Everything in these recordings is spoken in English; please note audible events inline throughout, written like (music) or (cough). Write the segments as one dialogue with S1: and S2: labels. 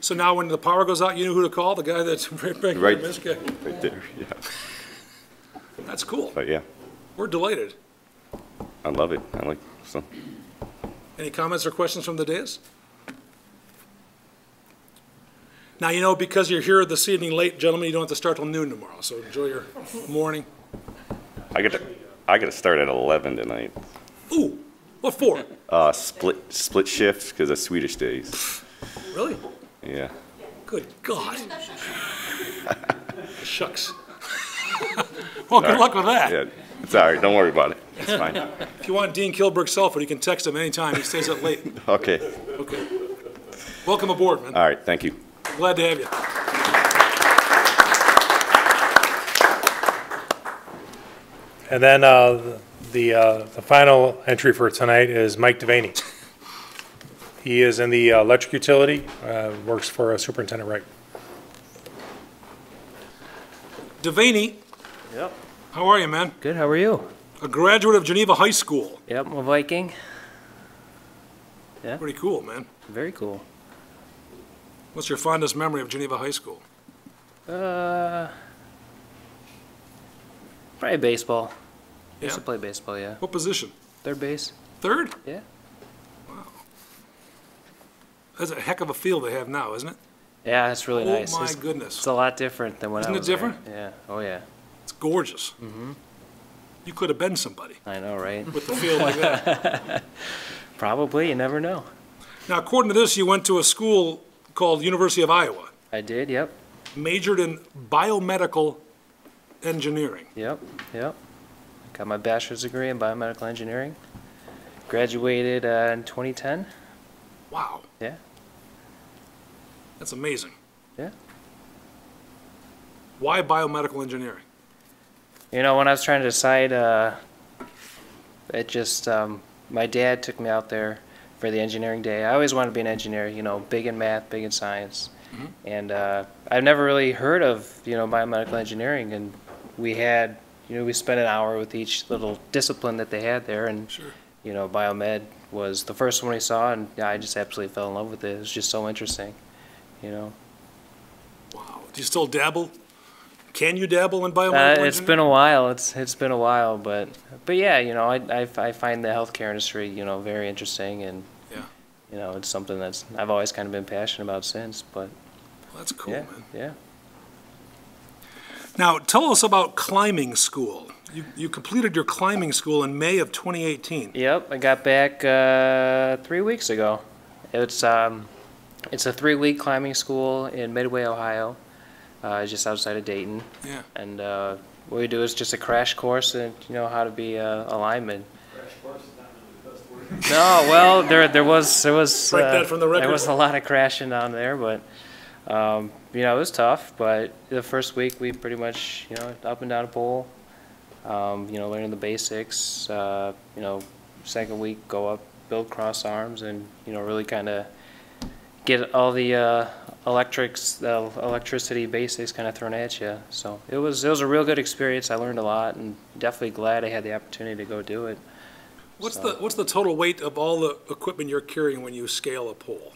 S1: So now when the power goes out, you know who to call? The guy that's (laughs) bringing
S2: Right,
S1: the guy.
S2: right there, (laughs) yeah.
S1: That's cool.
S2: But yeah,
S1: We're delighted.
S2: I love it. I like, so,
S1: Any comments or questions from the dais? Now, you know, because you're here this evening late, gentlemen, you don't have to start till noon tomorrow, so enjoy your morning.
S2: I got, I got to start at 11 tonight.
S1: Ooh, what for?
S2: Uh, split, split shifts because of Swedish days.
S1: Really?
S2: Yeah.
S1: Good
S2: (laughs)
S1: God. Shucks. (laughs) Well, good luck with that.
S2: Yeah, it's all right. Don't worry about it. It's fine.
S1: If you want Dean Kilburg's cell phone, you can text him anytime. He stays up
S2: (laughs)
S1: late.
S2: Okay.
S1: Okay. Welcome aboard, man.
S2: All right. Thank you.
S1: Glad to have you.
S3: And then uh, the, uh, the final entry for tonight is Mike Devaney. He is in the electric utility, uh, works for Superintendent Wright.
S1: Devaney,
S4: Yep.
S1: how are you, man?
S4: Good. How are you?
S1: A graduate of Geneva High School.
S4: Yep, I'm a Viking.
S1: Pretty cool, man.
S4: Very cool.
S1: What's your fondest memory of Geneva High School?
S4: Uh, probably baseball.
S1: Yeah.
S4: Used to play baseball. Yeah.
S1: What position?
S4: Third base.
S1: Third?
S4: Yeah.
S1: That's a heck of a field they have now, isn't it?
S4: Yeah, it's really
S1: Oh
S4: nice.
S1: my
S4: it's,
S1: goodness.
S4: It's a lot different than when
S1: Isn't
S4: I
S1: it
S4: was there.
S1: different?
S4: Yeah. Oh yeah.
S1: It's gorgeous.
S4: Mm-hmm.
S1: You could have been somebody
S4: I know, right? (laughs)
S1: with the field like that.
S4: Probably. You never know.
S1: Now, according to this, you went to a school called University of Iowa,
S4: I did. Yep.
S1: majored in biomedical engineering.
S4: Yep. Yep. Got my bachelor's degree in biomedical engineering. Graduated uh, in 2010.
S1: Wow,
S4: Yeah.
S1: that's amazing.
S4: Yeah.
S1: Why biomedical engineering?
S4: You know, when I was trying to decide, uh, it just, um, my dad took me out there for the engineering day. I always wanted to be an engineer, you know, big in math, big in science. And uh, I've never really heard of, you know, biomedical engineering. And we had, you know, we spent an hour with each little discipline that they had there. And,
S1: Sure.
S4: you know, biomed was the first one we saw, and I just absolutely fell in love with it. It was just so interesting, you know.
S1: Wow. Do you still dabble? Can you dabble in biomedical
S4: Uh,
S1: engineering?
S4: it's been a while. It's it's been a while, but but yeah, you know, I, I, I find the healthcare industry, you know, very interesting, and
S1: Yeah.
S4: you know, it's something that's I've always kind of been passionate about since. But
S1: Well, that's cool,
S4: yeah,
S1: man.
S4: yeah.
S1: Now, tell us about climbing school. You, you completed your climbing school in May of 2018.
S4: Yep, I got back uh, three weeks ago. It's um, it's a three-week climbing school in Midway, Ohio, uh, just outside of Dayton.
S1: Yeah.
S4: And uh, what we do is just a crash course and, you know, how to be a, a lineman. Crash course is not really the best word. (laughs) No, well, there, there was, there
S1: (laughs)
S4: was.
S1: Strike that
S4: uh,
S1: from the record.
S4: There was a lot of crashing down there, but, um, you know, it was tough, but the first week, we pretty much, you know, up and down a pole, um, you know, learning the basics, uh, you know, second week, go up, build cross arms, and, you know, really kind of get all the uh, electrics, the electricity basics kind of thrown at you. So it was it was a real good experience. I learned a lot, and definitely glad I had the opportunity to go do it.
S1: What's the, what's the total weight of all the equipment you're carrying when you scale a pole?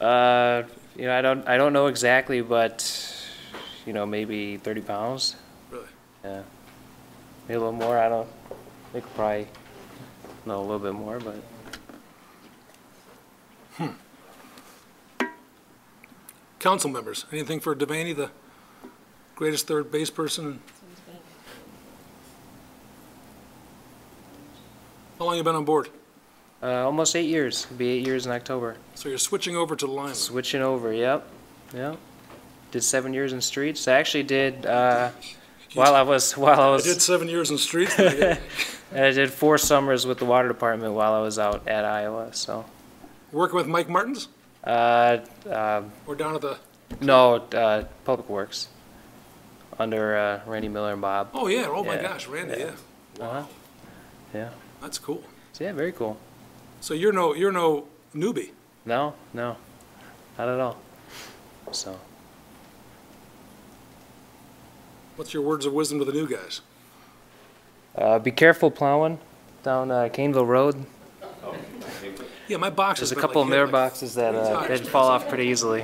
S4: Uh, you know, I don't I don't know exactly, but you know, maybe 30 pounds,
S1: Really?
S4: yeah, maybe a little more. I don't. I think probably no, a little bit more, but
S1: Council members, anything for Devaney, the greatest third base person? How long you been on board?
S4: uh, almost eight years. It'll be eight years in October.
S1: So you're switching over to lineman.
S4: Switching over, yep, yep. Did seven years in streets. I actually
S1: (laughs)
S4: did uh, while I was while I
S1: I did
S4: was
S1: seven years in streets. and I
S4: (laughs)
S1: did-
S4: and I did four summers with the water department while I was out at Iowa. So
S1: Working with Mike Martins
S4: uh, uh,
S1: or down at the,
S4: no, uh, Public Works under uh, Randy Miller and Bob.
S1: oh yeah, oh my
S4: Yeah,
S1: gosh, Randy, yeah.
S4: Uh-huh. Yeah.
S1: That's cool.
S4: So yeah, very cool.
S1: So you're no, you're no newbie.
S4: No, no, not at all. So.
S1: What's your words of wisdom to the new guys?
S4: Uh, be careful plowing down uh, Caneville Road.
S1: Yeah, my box
S4: There's
S1: has
S4: a
S1: been
S4: couple
S1: like
S4: of
S1: hit
S4: mirror
S1: like
S4: boxes that
S1: three
S4: uh,
S1: times.
S4: that fall off pretty easily.